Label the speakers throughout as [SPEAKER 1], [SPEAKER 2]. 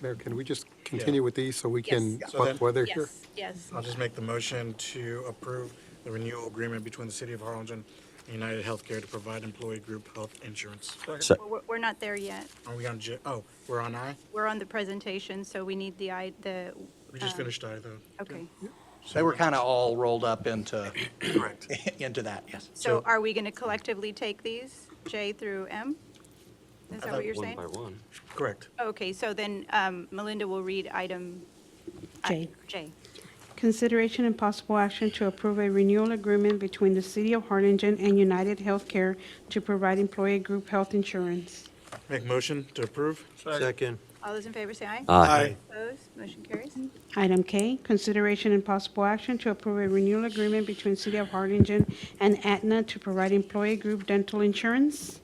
[SPEAKER 1] Mayor, can we just continue with these so we can,
[SPEAKER 2] Yes. So then-
[SPEAKER 1] while they're here?
[SPEAKER 3] Yes, yes.
[SPEAKER 2] I'll just make the motion to approve the renewal agreement between the City of Harlingen and United Healthcare to provide employee group health insurance.
[SPEAKER 4] Se-
[SPEAKER 3] Well, We're, we're not there yet.
[SPEAKER 2] Are we on, J- oh, we're on I?
[SPEAKER 3] We're on the presentation, so we need the, I- the,
[SPEAKER 2] We just
[SPEAKER 3] Um,
[SPEAKER 2] finished I, though.
[SPEAKER 3] okay.
[SPEAKER 4] They were kind of all rolled up into,
[SPEAKER 2] Correct.
[SPEAKER 4] into that, yes.
[SPEAKER 3] So are we going to collectively take these, J through M? Is that what you're saying?
[SPEAKER 5] one.
[SPEAKER 2] Correct.
[SPEAKER 3] Okay, so then um, Melinda will read item
[SPEAKER 6] J.
[SPEAKER 3] J.
[SPEAKER 6] Consideration and possible action to approve a renewal agreement between the City of Harlingen and United Healthcare to provide employee group health insurance.
[SPEAKER 2] Make motion to approve?
[SPEAKER 5] Second.
[SPEAKER 3] All those in favor say aye. Opposed, motion carries.
[SPEAKER 6] Item K, consideration and possible action to approve a renewal agreement between City of Harlingen and Aetna to provide employee group dental insurance.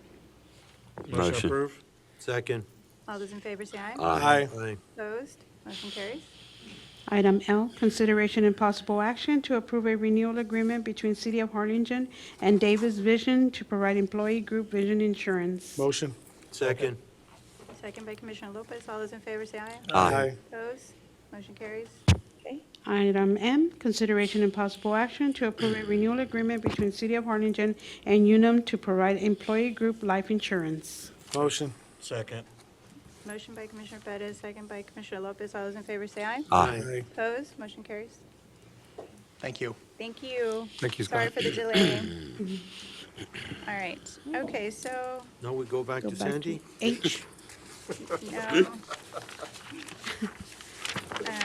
[SPEAKER 2] Motion to
[SPEAKER 5] Motion.
[SPEAKER 2] approve?
[SPEAKER 5] Second.
[SPEAKER 3] All those in favor say aye.
[SPEAKER 5] Aye.
[SPEAKER 3] Opposed, motion carries.
[SPEAKER 6] Item L, consideration and possible action to approve a renewal agreement between City of Harlingen and Davis Vision to provide employee group vision insurance.
[SPEAKER 7] Motion.
[SPEAKER 5] Second.
[SPEAKER 3] Second by Commissioner Lopez. All those in favor say aye.
[SPEAKER 5] Aye.
[SPEAKER 3] Opposed, motion carries.
[SPEAKER 6] Item M, consideration and possible action to approve a renewal agreement between City of Harlingen and Unum to provide employee group life insurance.
[SPEAKER 7] Motion.
[SPEAKER 2] Second.
[SPEAKER 3] Motion by Commissioner Bettis, second by Commissioner Lopez. All those in favor say aye.
[SPEAKER 5] Aye.
[SPEAKER 3] Opposed, motion carries.
[SPEAKER 4] Thank you.
[SPEAKER 3] Thank you.
[SPEAKER 1] Thank you,
[SPEAKER 3] Sorry
[SPEAKER 1] Scott.
[SPEAKER 3] for the delay. All right, okay, so,
[SPEAKER 5] Now we go back
[SPEAKER 6] Go
[SPEAKER 5] to
[SPEAKER 6] back to
[SPEAKER 5] Sandy?
[SPEAKER 6] H,
[SPEAKER 3] no.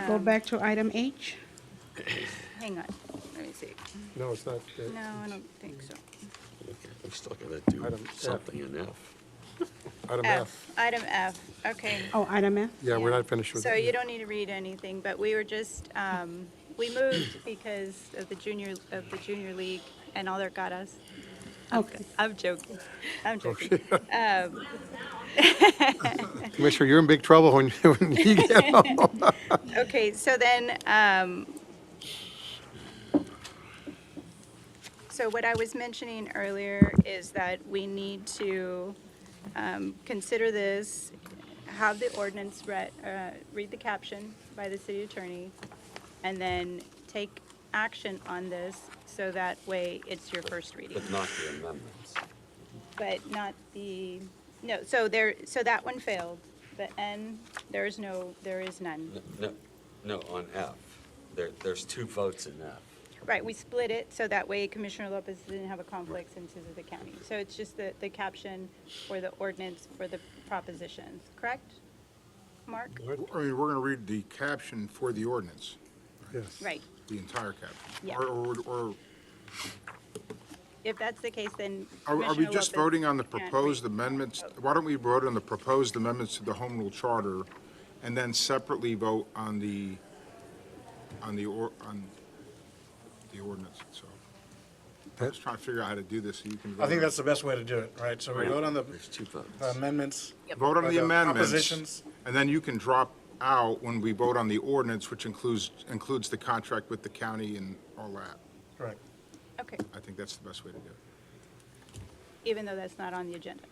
[SPEAKER 6] go
[SPEAKER 3] Um,
[SPEAKER 6] back to item H.
[SPEAKER 3] Hang on, let me see.
[SPEAKER 1] No, it's not. uh,
[SPEAKER 3] No, I don't think so.
[SPEAKER 8] We still gotta do
[SPEAKER 1] Item F.
[SPEAKER 8] something in F.
[SPEAKER 1] Item
[SPEAKER 3] F,
[SPEAKER 1] F.
[SPEAKER 3] item F, okay.
[SPEAKER 6] Oh, item F.
[SPEAKER 1] Yeah, we're not finished with
[SPEAKER 3] So
[SPEAKER 1] it.
[SPEAKER 3] you don't need to read anything, but we were just, um, we moved because of the junior, of the junior league and all their gatas.
[SPEAKER 6] Okay.
[SPEAKER 3] I'm joking,
[SPEAKER 1] Oh,
[SPEAKER 3] I'm joking. Um,
[SPEAKER 1] Commissioner, you're in big trouble when when you get home.
[SPEAKER 3] Okay, so then, um, so what I was mentioning earlier is that we need to, um, consider this, have the ordinance read, uh, read the caption by the city attorney, and then take action on this, so that way it's your first reading,
[SPEAKER 8] But not the amendments.
[SPEAKER 3] but not the, no, so there, so that one failed. The N, there is no, there is none.
[SPEAKER 8] N- No, no, on F. There, there's two votes in F.
[SPEAKER 3] Right, we split it, so that way Commissioner Lopez didn't have a conflict since this is the county. So it's just the, the caption or the ordinance for the propositions, correct? Mark?
[SPEAKER 9] I mean, we're going to read the caption for the ordinance,
[SPEAKER 1] Yes.
[SPEAKER 3] Right.
[SPEAKER 9] the entire caption.
[SPEAKER 3] Yeah.
[SPEAKER 9] Or- Or, or,
[SPEAKER 3] If that's the case, then
[SPEAKER 9] are- are we
[SPEAKER 3] Commissioner
[SPEAKER 9] just
[SPEAKER 3] Lopez
[SPEAKER 9] voting on the
[SPEAKER 3] can't read.
[SPEAKER 9] proposed amendments? Why don't we vote on the proposed amendments to the Home Rule Charter and then separately vote on the, on the, or on the ordinance itself? I'm just trying to figure out how to do this so you can.
[SPEAKER 2] I think
[SPEAKER 9] vote on-
[SPEAKER 2] that's the best way to do it, right? So we vote on the
[SPEAKER 8] There's two votes.
[SPEAKER 2] the amendments.
[SPEAKER 9] Vote
[SPEAKER 2] or
[SPEAKER 9] on the amendments,
[SPEAKER 2] uh, Propositions.
[SPEAKER 9] and then you can drop out when we vote on the ordinance, which includes, includes the contract with the county and all that.
[SPEAKER 2] Correct.
[SPEAKER 3] Okay,
[SPEAKER 9] I think that's the best way to do it.
[SPEAKER 3] even though that's not on the agenda.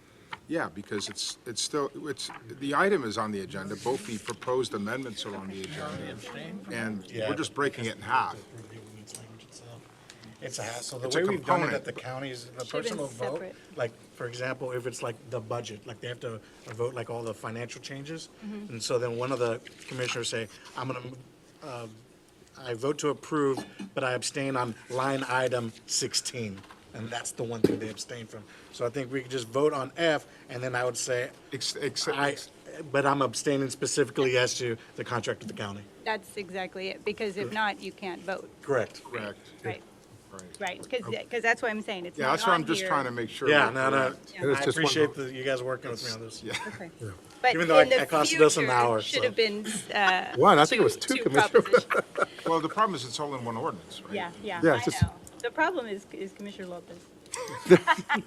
[SPEAKER 9] Yeah, because it's, it's still, it's, the item is on the agenda, both the proposed amendments are on the agenda. And
[SPEAKER 2] Yeah.
[SPEAKER 9] we're just breaking it in half.
[SPEAKER 2] It's a hassle. The
[SPEAKER 9] It's a
[SPEAKER 2] way we've done it
[SPEAKER 9] component.
[SPEAKER 2] at the counties, the
[SPEAKER 3] Should've been
[SPEAKER 2] personal vote,
[SPEAKER 3] separate.
[SPEAKER 2] like, for example, if it's like the budget, like they have to vote like all the financial changes.
[SPEAKER 3] Mm-hmm.
[SPEAKER 2] And so then one of the commissioners say, I'm gonna, uh, I vote to approve, but I abstain on line item sixteen. And that's the one thing they abstain from. So I think we could just vote on F and then I would say,
[SPEAKER 9] Ex- ex-
[SPEAKER 2] I, but I'm abstaining specifically as to the contract with the county.
[SPEAKER 3] That's exactly it, because if not, you can't vote,
[SPEAKER 2] Correct.
[SPEAKER 9] Correct.
[SPEAKER 3] right?
[SPEAKER 9] Right.
[SPEAKER 3] Right, because, that's what I'm saying, it's
[SPEAKER 9] Yeah,
[SPEAKER 3] not
[SPEAKER 9] that's what
[SPEAKER 3] on
[SPEAKER 9] I'm just
[SPEAKER 3] here.
[SPEAKER 9] trying to make sure.
[SPEAKER 2] Yeah,
[SPEAKER 9] that
[SPEAKER 2] no,
[SPEAKER 9] we're
[SPEAKER 2] no.
[SPEAKER 9] not-
[SPEAKER 3] Yeah.
[SPEAKER 1] it's just
[SPEAKER 2] I
[SPEAKER 1] one
[SPEAKER 2] appreciate
[SPEAKER 1] vote.
[SPEAKER 2] the- you guys working with me on this.
[SPEAKER 3] Okay. But
[SPEAKER 2] Even though
[SPEAKER 3] in
[SPEAKER 2] it-
[SPEAKER 3] the
[SPEAKER 2] it costed us an
[SPEAKER 3] future,
[SPEAKER 2] hour,
[SPEAKER 3] Should
[SPEAKER 2] so.
[SPEAKER 3] have been, uh.
[SPEAKER 1] One, I think it was two, Commissioner.
[SPEAKER 3] propositions.
[SPEAKER 9] Well, the problem is it's all in one ordinance, right?
[SPEAKER 3] Yeah, yeah,
[SPEAKER 1] Yeah,
[SPEAKER 3] I
[SPEAKER 1] just-
[SPEAKER 3] know. The problem is, is Commissioner Lopez.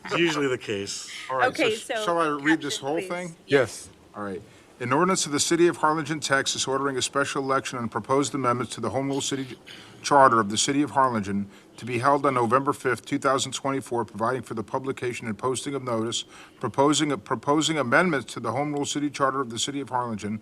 [SPEAKER 2] It's usually the case.
[SPEAKER 9] All right,
[SPEAKER 3] Okay,
[SPEAKER 9] sh-
[SPEAKER 3] so
[SPEAKER 9] Shall I read this
[SPEAKER 3] caption,
[SPEAKER 9] whole
[SPEAKER 3] please.
[SPEAKER 9] thing?
[SPEAKER 1] Yes.
[SPEAKER 9] All right. An ordinance of the City of Harlingen, Texas, ordering a special election and proposed amendments to the Home Rule City Charter of the City of Harlingen to be held on November 5th, 2024, providing for the publication and posting of notice, proposing, proposing amendments to the Home Rule City Charter of the City of Harlingen,